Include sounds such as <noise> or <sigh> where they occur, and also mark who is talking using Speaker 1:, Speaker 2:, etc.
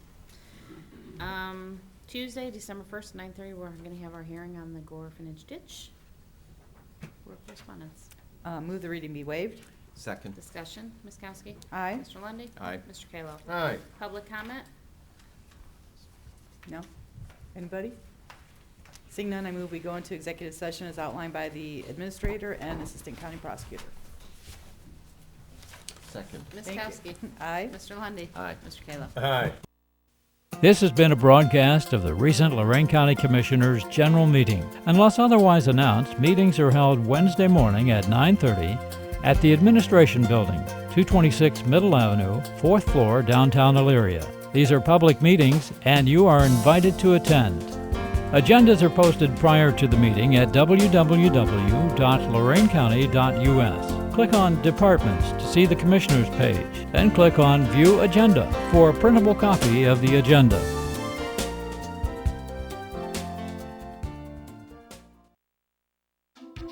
Speaker 1: Um, Tuesday, December first, nine thirty, we're gonna have our hearing on the Gore orphanage ditch. Board correspondence.
Speaker 2: Uh, Move the reading be waived.
Speaker 3: Second.
Speaker 1: Discussion, Ms. Kowski?
Speaker 2: Aye.
Speaker 1: Mr. Lundy.
Speaker 3: Aye.
Speaker 1: Mr. Kayla?
Speaker 4: Aye.
Speaker 1: Public comment?
Speaker 2: No? Anybody? Seeing none, I move we go into executive session as outlined by the Administrator and Assistant County Prosecutor.
Speaker 3: Second.
Speaker 1: Ms.
Speaker 2: Thank
Speaker 1: Kowski?
Speaker 2: you. <laughs> Aye.
Speaker 1: Mr. Lundy.
Speaker 3: Aye.
Speaker 1: Mr. Kayla?
Speaker 4: Aye.
Speaker 5: This has been a broadcast of the recent Lorraine County Commissioners' General Meeting. Unless otherwise announced, meetings are held Wednesday morning at 9:30 at the Administration Building, 226 Middle Avenue, 4th floor, downtown Elyria. These are public meetings, and you are invited to attend. Agendas are posted prior to the meeting at www.lorainecounty.us. Click on Departments to see the Commissioners page, then click on View Agenda for a printable copy of the agenda.